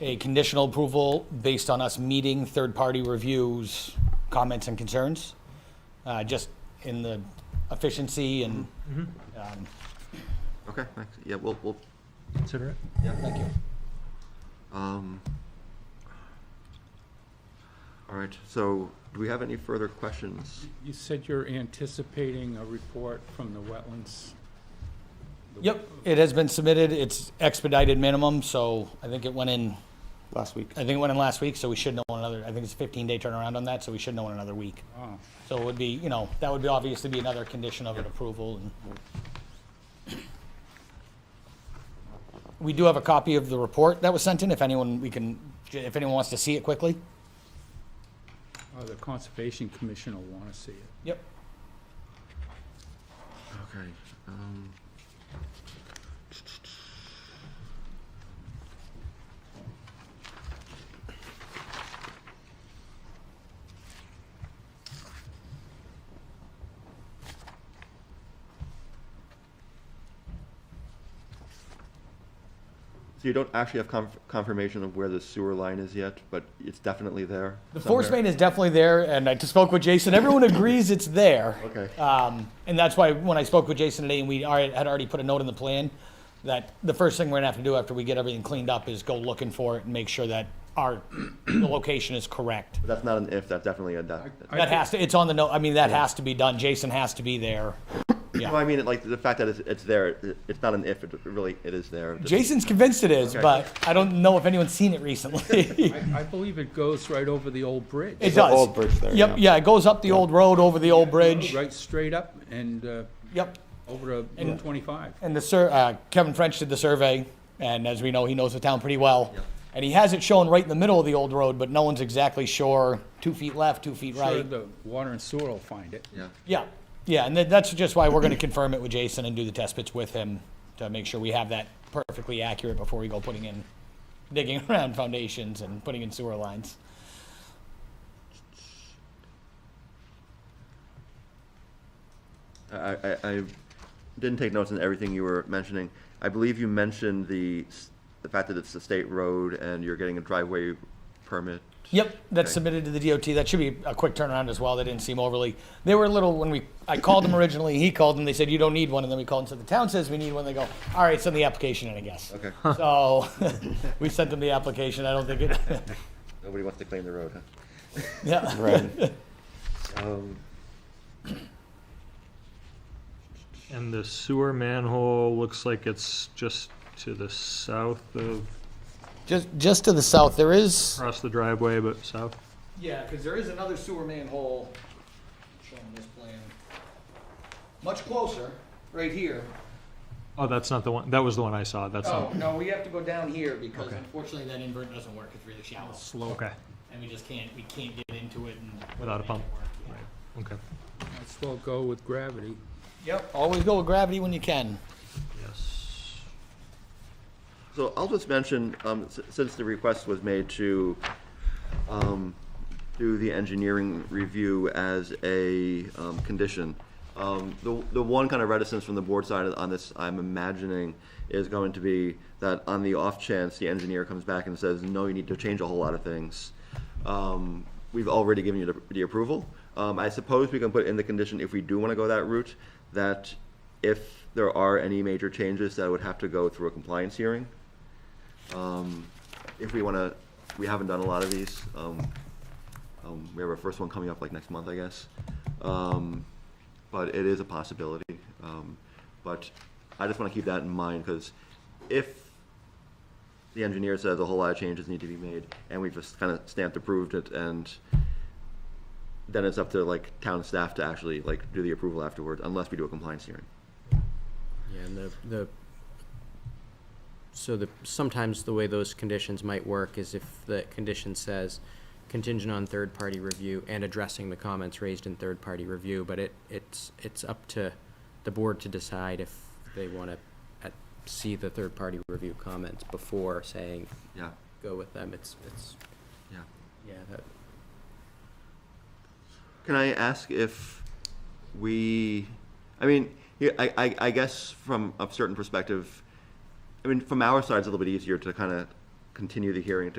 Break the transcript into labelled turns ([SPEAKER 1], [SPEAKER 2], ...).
[SPEAKER 1] a conditional approval based on us meeting third-party reviews, comments and concerns, uh, just in the efficiency and, um,
[SPEAKER 2] Okay, thanks. Yeah, we'll, we'll,
[SPEAKER 3] Consider it.
[SPEAKER 1] thank you.
[SPEAKER 2] um, all right, so do we have any further questions?
[SPEAKER 4] You said you're anticipating a report from the wetlands.
[SPEAKER 1] Yep, it has been submitted. It's expedited minimum, so I think it went in,
[SPEAKER 5] last week.
[SPEAKER 1] I think it went in last week, so we should know in another, I think it's a 15-day turnaround on that, so we should know in another week.
[SPEAKER 4] Oh,
[SPEAKER 1] So it would be, you know, that would be obviously be another condition of an approval and. We do have a copy of the report that was sent in, if anyone, we can, if anyone wants to see it quickly.
[SPEAKER 4] oh, the Conservation Commission will want to see it.
[SPEAKER 1] Yep.
[SPEAKER 2] Okay, um. So you don't actually have conf- confirmation of where the sewer line is yet, but it's definitely there?
[SPEAKER 1] The force
[SPEAKER 2] somewhere?
[SPEAKER 1] main is definitely there, and I just spoke with Jason, everyone agrees it's there.
[SPEAKER 2] Okay.
[SPEAKER 1] Um, and that's why when I spoke with Jason today, and we already, had already put a note in the plan, that the first thing we're gonna have to do after we get everything cleaned up is go looking for it and make sure that our, the location is correct.
[SPEAKER 2] That's not an if, that's definitely a def-
[SPEAKER 4] I
[SPEAKER 1] That
[SPEAKER 4] think-
[SPEAKER 1] has to, it's on the note, I mean, that has to be done, Jason has to be there. Yeah.
[SPEAKER 2] No, I mean, like, the fact that it's, it's there, it- it's not an if, it really, it is there. Just-
[SPEAKER 1] Jason's convinced it is,
[SPEAKER 2] Okay.
[SPEAKER 1] but I don't know if anyone's seen it recently.
[SPEAKER 4] I, I believe it goes right over the old bridge.
[SPEAKER 1] It
[SPEAKER 5] There's an
[SPEAKER 1] does.
[SPEAKER 5] old bridge there,
[SPEAKER 1] Yep,
[SPEAKER 5] yeah.
[SPEAKER 1] yeah, it goes up the old road, over the old bridge,
[SPEAKER 4] Right straight up and uh,
[SPEAKER 1] yep.
[SPEAKER 4] over to Route 25.
[SPEAKER 1] And the sur, uh, Kevin French did the survey, and as we know, he knows the town pretty well. And he has it shown right in the middle of the old road, but no one's exactly sure, two feet left, two feet
[SPEAKER 4] Sure,
[SPEAKER 1] right.
[SPEAKER 4] the water and sewer will find it.
[SPEAKER 2] Yeah.
[SPEAKER 1] Yeah, yeah, and that- that's just why we're gonna confirm it with Jason and do the test bits with him to make sure we have that perfectly accurate before we go putting in, digging around foundations and putting in sewer lines.
[SPEAKER 2] I, I, I didn't take notes on everything you were mentioning. I believe you mentioned the, s- the fact that it's a state road and you're getting a driveway permit.
[SPEAKER 1] Yep, that's
[SPEAKER 2] Okay.
[SPEAKER 1] submitted to the DOT. That should be a quick turnaround as well. They didn't seem overly, they were a little, when we, I called them originally, he called them, they said, you don't need one, and then we called and said, the town says we need one, they go, all right, send the application in, I guess.
[SPEAKER 2] Okay,
[SPEAKER 1] So, we sent them the application, I don't think it,
[SPEAKER 2] nobody wants to claim the road, huh?
[SPEAKER 1] yeah.
[SPEAKER 5] Right.
[SPEAKER 2] Um,
[SPEAKER 3] And the sewer manhole looks like it's just to the south of,
[SPEAKER 1] Just, just to the south, there is.
[SPEAKER 3] across the driveway, but south.
[SPEAKER 1] Yeah, because there is another sewer manhole shown on this plan. Much closer, right here.
[SPEAKER 3] Oh, that's not the one, that was the one I saw, that's
[SPEAKER 1] Oh,
[SPEAKER 3] not,
[SPEAKER 1] no, we have to go down here because
[SPEAKER 3] Okay.
[SPEAKER 1] unfortunately that invert doesn't work. It's really shallow.
[SPEAKER 4] Slow.
[SPEAKER 3] okay,
[SPEAKER 1] And we just can't, we can't get into it and.
[SPEAKER 3] Without a pump.
[SPEAKER 1] Yeah.
[SPEAKER 3] right, okay,
[SPEAKER 4] Let's well go with gravity.
[SPEAKER 1] Yep, always go with gravity when you can.
[SPEAKER 3] yes.
[SPEAKER 2] So I'll just mention, um, s- since the request was made to, um, do the engineering review as a, um, condition, um, the, the one kind of reticence from the board side on this, I'm imagining, is going to be that on the off chance, the engineer comes back and says, no, you need to change a whole lot of things. Um, we've already given you the, the approval. Um, I suppose we can put in the condition, if we do wanna go that route, that if there are any major changes that would have to go through a compliance hearing. Um, If we want to, we haven't done a lot of these. um, um, We have our first one coming up like next month, I guess. Um, But it is a possibility. Um, But I just want to keep that in mind because if the engineer says a whole lot of changes need to be made and we've just kind of stamped approved it and then it's up to like town staff to actually like do the approval afterwards unless we do a compliance hearing.
[SPEAKER 6] Yeah, and the, the, so the, sometimes the way those conditions might work is if the condition says contingent on third-party review and addressing the comments raised in third-party review, but it, it's, it's up to the board to decide if they wanna uh, see the third-party review comments before saying,
[SPEAKER 2] Yeah,
[SPEAKER 6] go with them, it's, it's,
[SPEAKER 2] yeah.
[SPEAKER 6] yeah, that,
[SPEAKER 2] Can I ask if we, I mean, yeah, I, I, I guess from a certain perspective, I mean, from our side, it's a little bit easier to kind of continue the hearing to